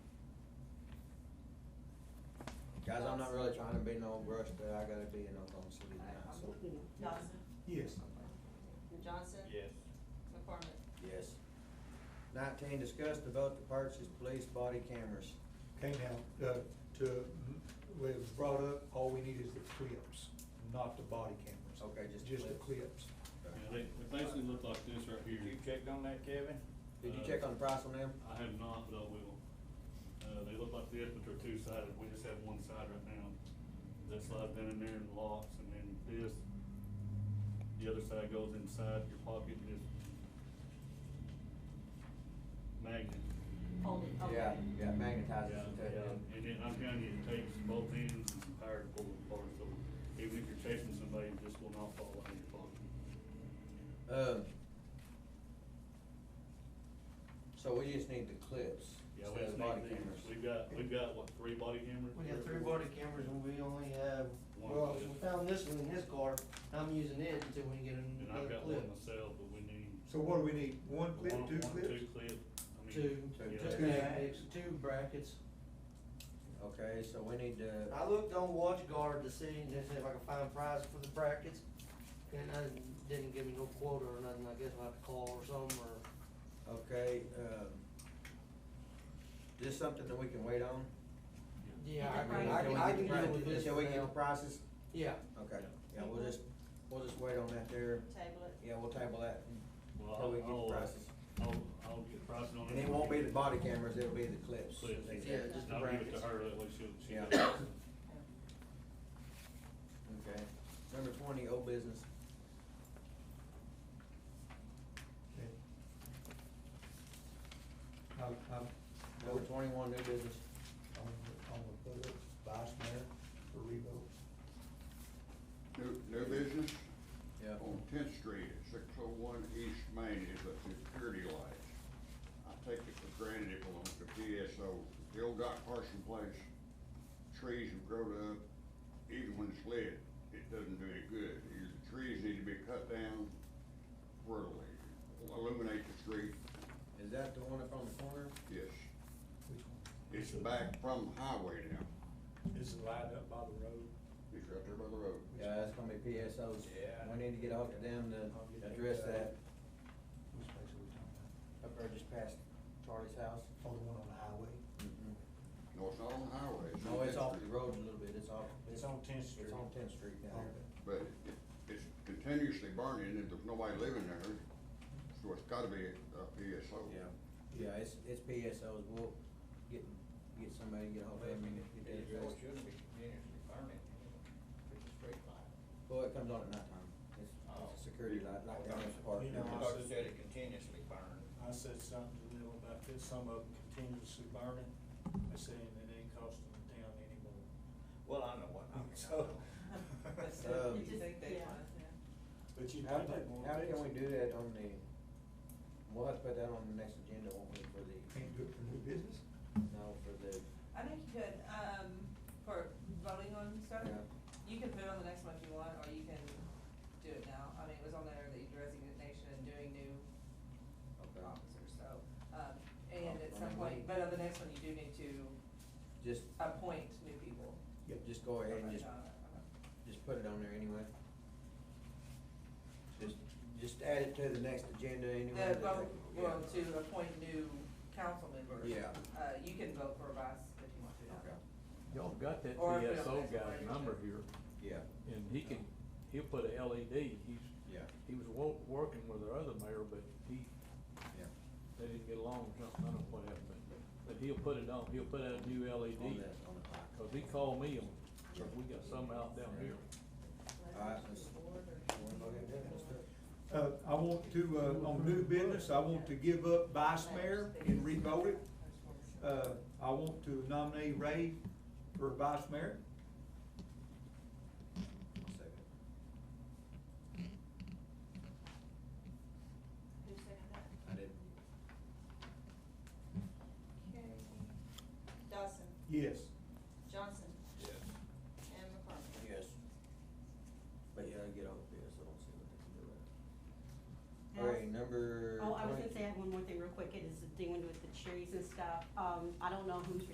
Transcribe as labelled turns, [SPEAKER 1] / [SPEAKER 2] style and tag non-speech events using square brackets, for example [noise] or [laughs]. [SPEAKER 1] guys, I'm not really trying to be no rush, but I gotta be in Oklahoma City tonight, so.
[SPEAKER 2] Dawson,
[SPEAKER 3] Yes.
[SPEAKER 2] Johnson.
[SPEAKER 4] Yes.
[SPEAKER 2] McCormick.
[SPEAKER 1] Yes. Nineteen, discuss the vote to purchase police body cameras.
[SPEAKER 3] Okay, now, uh, to, it was brought up, all we need is the clips, not the body cameras.
[SPEAKER 1] Okay, just
[SPEAKER 3] Just the
[SPEAKER 1] clips.
[SPEAKER 3] clips.
[SPEAKER 5] Yeah, they, they basically look like this right
[SPEAKER 4] You
[SPEAKER 5] here. Uh,
[SPEAKER 4] checked on that, Kevin?
[SPEAKER 1] Did you check on the price on them?
[SPEAKER 5] I have not, but I will. Uh, they look like this, but they're two-sided, we just have one side right now. That slide been in there and locks, and then this, the other side goes inside your pocket, and just magnet.
[SPEAKER 2] Hold it, okay.
[SPEAKER 1] Yeah, yeah,
[SPEAKER 5] Yeah,
[SPEAKER 1] magnetizes it.
[SPEAKER 5] yeah, and then I'm telling you, it takes both ends and some power to pull it apart, so even if you're chasing somebody, this will not fall out of your pocket.
[SPEAKER 1] Um, so we just need the clips
[SPEAKER 5] Yeah, we
[SPEAKER 1] instead
[SPEAKER 5] have
[SPEAKER 1] of body
[SPEAKER 5] body
[SPEAKER 1] cameras.
[SPEAKER 5] We've got, we've got, what, three body cameras?
[SPEAKER 6] We got three body cameras and we only have,
[SPEAKER 5] One.
[SPEAKER 6] well, we found this one in his car, and I'm using it until we get
[SPEAKER 5] And I've got
[SPEAKER 6] another
[SPEAKER 5] one
[SPEAKER 6] clip.
[SPEAKER 5] myself, but we need.
[SPEAKER 3] So what do we need? One clip,
[SPEAKER 5] one-
[SPEAKER 3] two
[SPEAKER 5] one,
[SPEAKER 3] clips?
[SPEAKER 5] Two clip. I mean,
[SPEAKER 6] Two,
[SPEAKER 1] Two
[SPEAKER 6] two
[SPEAKER 5] yeah.
[SPEAKER 6] magnets, two brackets.
[SPEAKER 1] Okay, so we need to,
[SPEAKER 6] I looked on WatchGuard to see if I could find prices for the brackets, and I didn't give me no quote or nothing, I guess I'll have to call or something, or,
[SPEAKER 1] okay, um, this something that we can wait on?
[SPEAKER 6] yeah, I
[SPEAKER 2] You
[SPEAKER 6] can,
[SPEAKER 2] can
[SPEAKER 6] I
[SPEAKER 2] price
[SPEAKER 6] can,
[SPEAKER 2] it.
[SPEAKER 6] I can deal with this uh,
[SPEAKER 1] Until we get the
[SPEAKER 6] now.
[SPEAKER 1] prices?
[SPEAKER 6] Yeah,
[SPEAKER 1] Okay, yeah, we'll just, we'll just wait on that there.
[SPEAKER 2] Table it.
[SPEAKER 1] Yeah, we'll table that.
[SPEAKER 5] Well,
[SPEAKER 1] Till we
[SPEAKER 5] I'll,
[SPEAKER 1] get
[SPEAKER 5] I'll, uh,
[SPEAKER 1] prices.
[SPEAKER 5] I'll, I'll get pricing on it.
[SPEAKER 1] And it won't be the body cameras, it'll be the clips.
[SPEAKER 5] Clips,
[SPEAKER 6] Yeah, just the
[SPEAKER 5] I'll give it to
[SPEAKER 6] brackets.
[SPEAKER 5] her, that way she'll, she
[SPEAKER 1] Yeah.
[SPEAKER 5] knows.
[SPEAKER 1] Okay. Number twenty, old business.
[SPEAKER 3] Okay. I'm, I'm,
[SPEAKER 1] Number twenty-one, new business.
[SPEAKER 3] I'm, I'm gonna put it, vice mayor for revote.
[SPEAKER 7] New, new business
[SPEAKER 1] Yeah.
[SPEAKER 7] on Tenth Street, six oh one East Main is a security light. I take it for granted it belongs to PSO. The old Doc Carson place, trees have grown up, even when it's lit, it doesn't do any good. Either the trees need to be cut down, or illuminate the street,
[SPEAKER 1] Is that the one up on the corner?
[SPEAKER 7] yes.
[SPEAKER 3] Which one?
[SPEAKER 7] It's back from the highway now,
[SPEAKER 4] Is it lined up by the road?
[SPEAKER 7] it's right there by the road.
[SPEAKER 1] Yeah, that's gonna be PSOs.
[SPEAKER 4] Yeah.
[SPEAKER 1] We need to get ahold of them
[SPEAKER 3] I'll get
[SPEAKER 1] to
[SPEAKER 3] that.
[SPEAKER 1] address that.
[SPEAKER 3] Which place are we talking about?
[SPEAKER 1] Up there just past Charlie's house.
[SPEAKER 3] Oh, the one on the highway?
[SPEAKER 7] No, it's not on the highway, it's on
[SPEAKER 1] No, Mm-hmm. it's
[SPEAKER 7] Tenth
[SPEAKER 1] off the
[SPEAKER 7] Street.
[SPEAKER 1] road a little bit, it's off,
[SPEAKER 6] it's on Tenth Street.
[SPEAKER 1] it's on Tenth Street down there.
[SPEAKER 7] But it- it's continuously burning and there's nobody living there, so it's gotta be a PSO.
[SPEAKER 1] Yeah, yeah, it's, it's PSOs, we'll get, get somebody, to get ahold of them and get that addressed.
[SPEAKER 4] oh, shouldn't be continuously burning, it's a straight line.
[SPEAKER 1] Well, it comes on at nighttime, it's, it's a security light, like down at the park.
[SPEAKER 8] You know, I
[SPEAKER 1] It's-
[SPEAKER 8] said-
[SPEAKER 4] it continuously burns.
[SPEAKER 8] I said something to them about this, some of them continuously burning, I said, and it ain't costing the town anymore.
[SPEAKER 4] Well, I know what
[SPEAKER 1] [laughs]
[SPEAKER 4] I mean.
[SPEAKER 8] So.
[SPEAKER 1] Um,
[SPEAKER 2] You just- yeah.
[SPEAKER 8] But you
[SPEAKER 1] How
[SPEAKER 8] pay that
[SPEAKER 1] can,
[SPEAKER 8] more.
[SPEAKER 1] how can we do that on the, we'll have to put that on the next agenda, won't we, for
[SPEAKER 3] Can't do
[SPEAKER 1] the,
[SPEAKER 3] it for new business?
[SPEAKER 1] no, for the,
[SPEAKER 2] I think you could, um, for voting on stuff,
[SPEAKER 1] Yeah.
[SPEAKER 2] you can put it on the next one if you want, or you can do it now. I mean, it was on there that you resignation and doing new
[SPEAKER 1] okay,
[SPEAKER 2] officers, so, um, and at
[SPEAKER 1] Oh, I
[SPEAKER 2] some point,
[SPEAKER 1] mean-
[SPEAKER 2] but on the next one, you do need to
[SPEAKER 1] just,
[SPEAKER 2] appoint new people.
[SPEAKER 3] Yeah,
[SPEAKER 1] just go ahead Oh, and
[SPEAKER 2] Okay,
[SPEAKER 1] just,
[SPEAKER 2] no, no, no.
[SPEAKER 1] just put it on there anyway. Just, just add it to the next agenda anyway.
[SPEAKER 2] The vote,
[SPEAKER 1] Yeah.
[SPEAKER 2] well, to appoint new council members.
[SPEAKER 1] Yeah.
[SPEAKER 2] Uh, you can vote for a vice if you want to.
[SPEAKER 1] Okay,
[SPEAKER 9] Y'all got that
[SPEAKER 2] Or if we
[SPEAKER 9] PSO
[SPEAKER 2] don't have somebody
[SPEAKER 9] guy's
[SPEAKER 2] to-
[SPEAKER 9] number here,
[SPEAKER 1] yeah,
[SPEAKER 9] and he can, he'll put a LED, he's,
[SPEAKER 1] yeah,
[SPEAKER 9] he was wo- working with our other mayor, but he,
[SPEAKER 1] yeah.
[SPEAKER 9] they didn't get along, or something, I don't know what happened, but- but he'll put it on, he'll put out a new E
[SPEAKER 1] On
[SPEAKER 9] LED.
[SPEAKER 1] that, on the back.
[SPEAKER 9] Cause he called me, on cause we got some out down here.
[SPEAKER 1] All right, let's, you wanna go ahead and do it, let's do it.
[SPEAKER 3] Uh, I want to, uh, on new business, I want to give up vice mayor and revote it. Uh, I want to nominate Ray for vice mayor.
[SPEAKER 1] Second.
[SPEAKER 2] Who seconded that?
[SPEAKER 1] I didn't,
[SPEAKER 2] Dawson,
[SPEAKER 3] Yes.
[SPEAKER 2] Johnson,
[SPEAKER 4] Yes.
[SPEAKER 2] and McCormick.
[SPEAKER 1] yes. But yeah, I get off of this, I don't see what they can do with it.
[SPEAKER 10] Now-
[SPEAKER 1] All right, number
[SPEAKER 10] Oh, I was gonna
[SPEAKER 1] 20.
[SPEAKER 10] say, I have one more thing real quick, it is dealing with the trees and stuff, um, I don't know who's